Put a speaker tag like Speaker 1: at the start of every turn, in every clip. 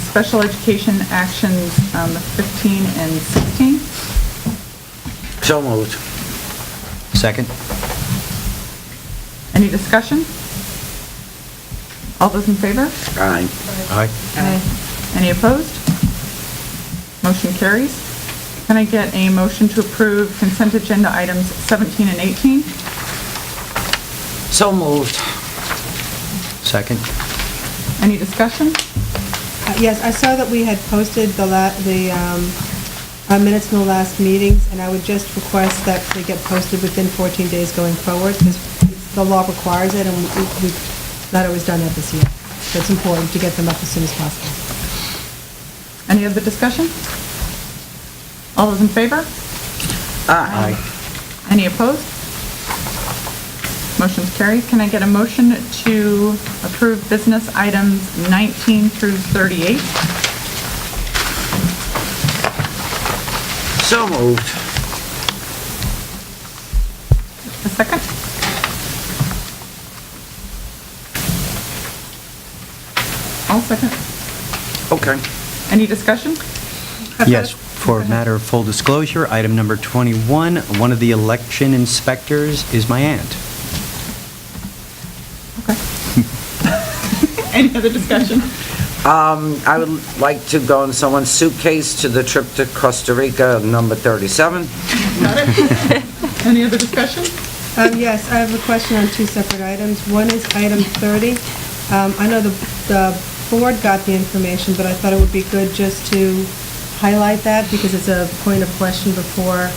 Speaker 1: special education actions um, 15 and 16.
Speaker 2: So moved.
Speaker 3: Second?
Speaker 1: Any discussion? All those in favor?
Speaker 2: Aye.
Speaker 3: Aye.
Speaker 1: Any opposed? Motion carries. Can I get a motion to approve consent agenda items 17 and 18?
Speaker 2: So moved.
Speaker 3: Second?
Speaker 1: Any discussion?
Speaker 4: Uh, Yes, I saw that we had posted the la, the, um, our minutes from the last meetings, and I would just request that they get posted within 14 days going forward, because the law requires it, and we- we've not always done that this year. So it's important to get them up as soon as possible.
Speaker 1: Any other discussion? All those in favor?
Speaker 2: Aye.
Speaker 1: Any opposed? Motion's carried. Can I get a motion to approve business items 19 through 38?
Speaker 2: So moved.
Speaker 1: A second? I'll second.
Speaker 2: Okay.
Speaker 1: Any discussion?
Speaker 3: Yes, for a matter of full disclosure, item number 21, one of the election inspectors is my aunt.
Speaker 1: Okay. Any other discussion?
Speaker 2: Um, I would like to go in someone's suitcase to the trip to Costa Rica, number 37.
Speaker 1: Any other discussion?
Speaker 4: Um, Yes, I have a question on two separate items. One is item 30. Um, I know the the board got the information, but I thought it would be good just to highlight that because it's a point of question before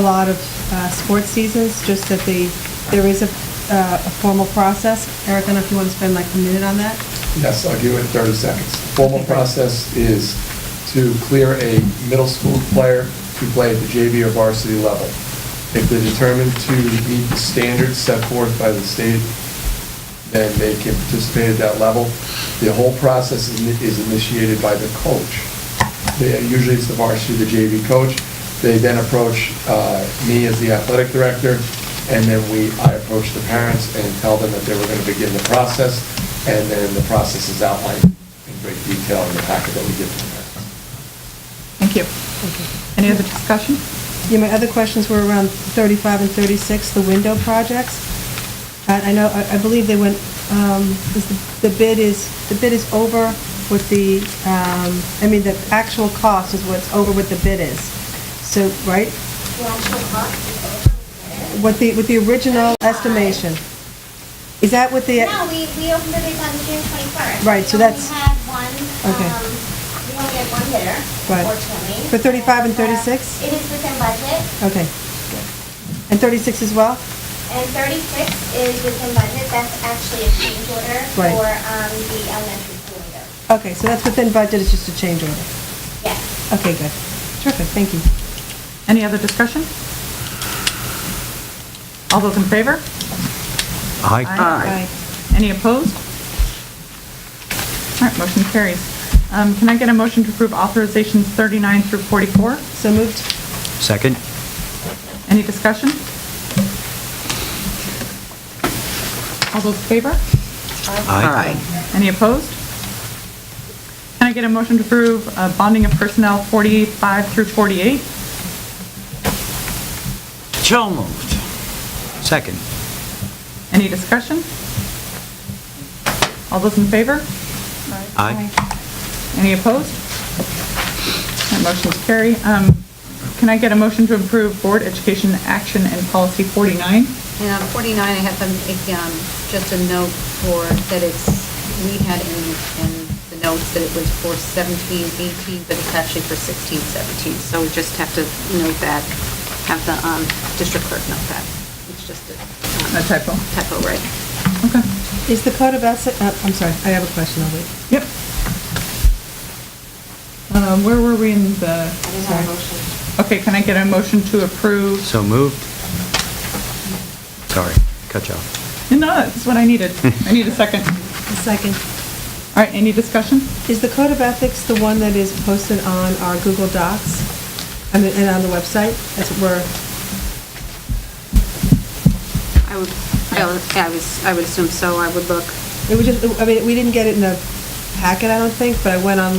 Speaker 4: a lot of uh, sports seasons, just that the, there is a uh, a formal process. Eric, I don't know if you want to spend like a minute on that?
Speaker 5: Yes, I'll give it in 30 seconds. Formal process is to clear a middle school player to play at the JV or varsity level. If they're determined to meet the standards set forth by the state, then they can participate at that level. The whole process is is initiated by the coach. They- Usually it's the varsity, the JV coach. They then approach uh, me as the athletic director, and then we, I approach the parents and tell them that they were going to begin the process, and then the process is outlined in great detail in the packet that we give to the parents.
Speaker 1: Thank you. Any other discussion?
Speaker 4: Yeah, my other questions were around 35 and 36, the window projects. And I know, I I believe they went, um, is the- the bid is, the bid is over with the, um, I mean, the actual cost is what's over what the bid is. So, right? What the, with the original estimation? Is that what the?
Speaker 6: No, we, we opened the bids on June twenty-first.
Speaker 4: Right, so that's-
Speaker 6: We only had one,
Speaker 4: Okay.
Speaker 6: um, we only had one bidder,
Speaker 4: Right.
Speaker 6: unfortunately.
Speaker 4: For 35 and
Speaker 6: Uh,
Speaker 4: 36?
Speaker 6: It is within budget,
Speaker 4: Okay. And 36 as well?
Speaker 6: and thirty-six is within budget, that's actually a change order
Speaker 4: Right.
Speaker 6: for, um, the elementary school window.
Speaker 4: Okay, so that's within budget, it's just a change order.
Speaker 6: Yes.
Speaker 4: Okay, good. Terrific, thank you.
Speaker 1: Any other discussion? All those in favor?
Speaker 3: Aye.
Speaker 2: Aye.
Speaker 1: Any opposed? All right, motion carries. Um, Can I get a motion to approve authorizations 39 through 44?
Speaker 4: So moved?
Speaker 3: Second?
Speaker 1: Any discussion? All those in favor?
Speaker 2: Aye.
Speaker 1: Any opposed? Can I get a motion to approve uh, bonding of personnel 45 through 48?
Speaker 2: So moved.
Speaker 3: Second?
Speaker 1: Any discussion? All those in favor?
Speaker 3: Aye.
Speaker 1: Any opposed? That motion's carry. Um, Can I get a motion to approve board education action and policy 49?
Speaker 7: And on 49, I have um, a, um, just a note for, that it's, we had in, in the notes that it was for 17, 18, but it's actually for 16, 17. So we just have to note that, have the um, district clerk note that. It's just a um,
Speaker 1: A typo.
Speaker 7: typo, right?
Speaker 1: Okay.
Speaker 4: Is the code of ethics, uh, I'm sorry, I have a question, I'll wait.
Speaker 1: Yep. Um, Where were we in the, okay, can I get a motion to approve?
Speaker 3: So moved. Sorry, cut you off.
Speaker 1: No, that's what I needed. I need a second.
Speaker 4: A second.
Speaker 1: All right, any discussion?
Speaker 4: Is the code of ethics the one that is posted on our Google Docs? I mean, and on the website, as it were?
Speaker 7: I would, I would- I was, I would assume so. I would look.
Speaker 4: It was just, I mean, we didn't get it in the packet, I don't think, but I went on